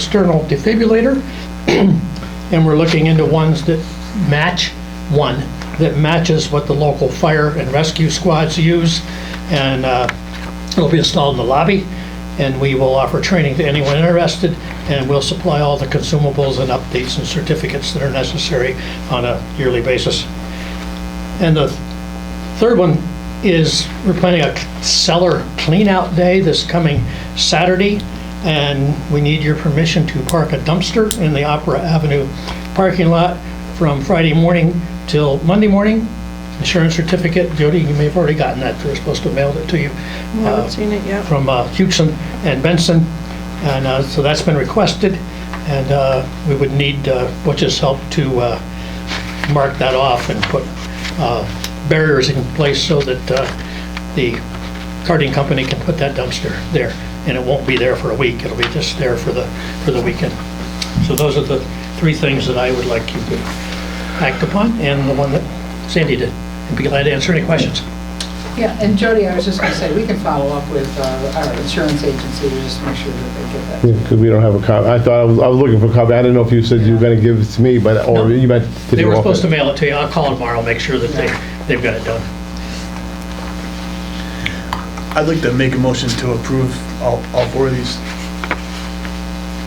external defibrillator, and we're looking into ones that match, one, that matches what the local fire and rescue squads use, and uh, it'll be installed in the lobby, and we will offer training to anyone interested, and we'll supply all the consumables and updates and certificates that are necessary on a yearly basis. And the Third one is we're planning a cellar cleanout day this coming Saturday, and we need your permission to park a dumpster in the Opera Avenue parking lot from Friday morning till Monday morning. Insurance certificate, Jody, you may have already gotten that, they're supposed to mail it to you. I Uh, haven't seen it yet. from uh, Hugeson and Benson, and uh, so that's been requested, and uh, we would need uh, Butch's help to uh, mark that off and put uh, barriers in place so that uh, the carting company can put that dumpster there, and it won't be there for a week, it'll be just there for the, for the weekend. So those are the three things that I would like you to act upon, and the one that Sandy did, and be glad to answer any questions. Yeah, and Jody, I was just going to say, we can follow up with uh, our insurance agency to just make sure that they get that. Because we don't have a copy. I thought, I was, I was looking for a copy. I didn't know if you said you were gonna give it to me, but, No. or you meant. did They you were offer supposed to it? mail it to you. I'll call tomorrow, make sure that they, they've got it done. I'd like to make a motion to approve all, all four of these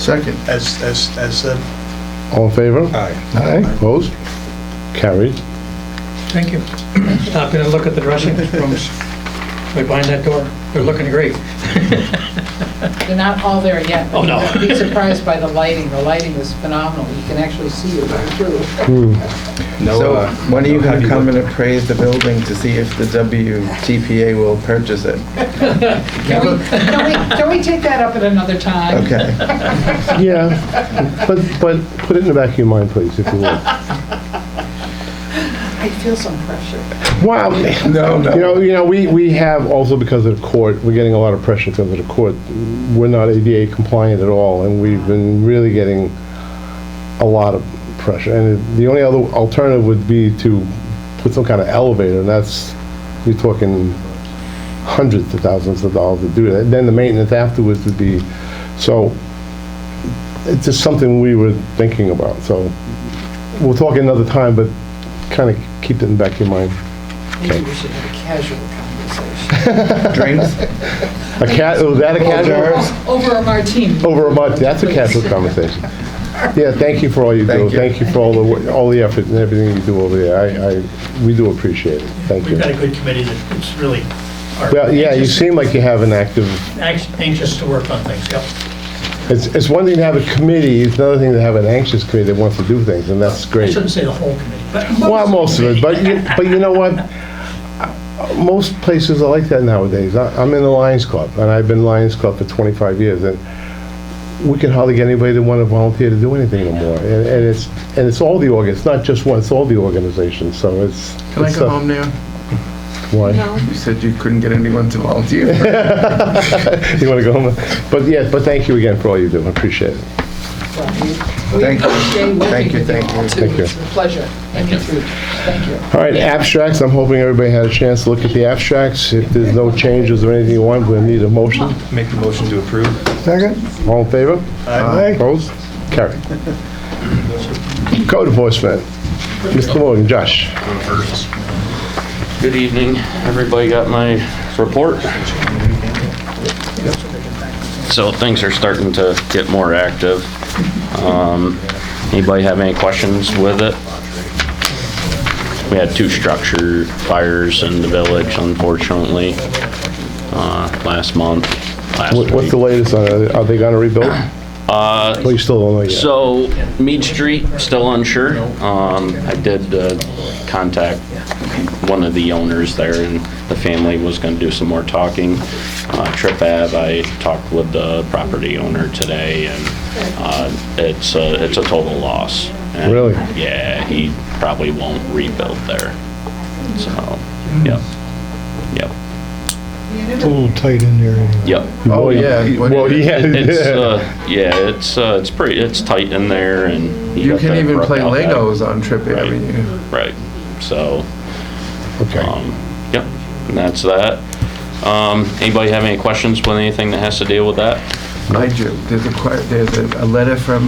Second. as, as, as said. All in favor? Aye. Aye, opposed? Carried. Thank you. Stop in and Uh, look at the dressing rooms right behind that door. They're looking great. They're not all there yet. but Oh, no. you'll Be surprised by the lighting. The lighting is phenomenal. You can actually see it right through. So uh, when are you going to come and appraise the building to see if the WTPA will purchase it? Can we, can we, can we take that up at another time? Okay. Yeah, but, but put it in the back of your mind, please, if you will. I feel some pressure. Wow. No, no. You know, you know, we, we have also because of the court, we're getting a lot of pressure because of the court. We're not ADA compliant at all, and we've been really getting a lot of pressure. And the only other alternative would be to put some kind of elevator, and that's, you're talking hundreds of thousands of dollars to do that. Then the maintenance afterwards would be, so it's just something we were thinking about, so we'll talk another time, but kind of keep it in the back of your mind. Maybe we should have a casual conversation. Drinks? A cat, was that a casual? jars. Over a martini. Over a month, that's a casual conversation. Yeah, thank you for all you do. Thank you. Thank you for all the, wo- all the effort and everything you do over there. I, I, we do appreciate it. Thank you. We've got a good committee that is really are Well, yeah, you seem like you have an active, anx- anxious to work on things, yep. it's, it's one thing to have a committee, it's another thing to have an anxious committee that wants to do things, and that's I great. shouldn't say the whole committee, but. Well, most of it, but, you- but you know what? Most places are like that nowadays. I- I'm in the Lions Club, and I've been Lions Club for 25 years, and we can hardly get anybody to want to volunteer to do anything anymore. And and it's, and it's all the org, it's not just one, it's all the organizations, so it's. Can I it's go a- home now? Why? You said you couldn't get anyone to volunteer. You want to go home? But yeah, but thank you again for all you do, I appreciate it. Thank you. Thank you, thank you. Thank you. It's a pleasure. Thank you. Thank you. All right, abstracts, I'm hoping everybody had a chance to look at the abstracts. If there's no changes or anything you want, we'll need a motion. Make the motion to approve. Second. All in favor? Aye. Opposed? Carried. Code enforcement. Mr. Morgan, Josh. Good evening. Everybody got my report? So things are starting to get more active. Um, Anybody have any questions with it? We had two structure fires in the village unfortunately, uh, last month, last What- What's the week. latest on, it? are they gonna rebuild? Uh. Well, you still don't know yet. So Mead Street, still unsure. Um, I did uh, contact one of the owners there, and the family was gonna do some more talking. Uh, Trip Ave, I talked with the property owner today, and uh, it's, a- it's a total loss. And, Really? Yeah, he probably won't rebuild there. So, yep, yep, It's a little tight in there. yep. Oh, yeah. Well, yeah. It's, uh, yeah, it's, uh, it's pretty, it's tight in there, and. he You got can't that even broke play out back. Legos on Trip Avenue. Right, so, Okay. um, yep, and that's that. Um, anybody have any questions with anything that has to deal with that? I do. There's a, que- there's a a letter from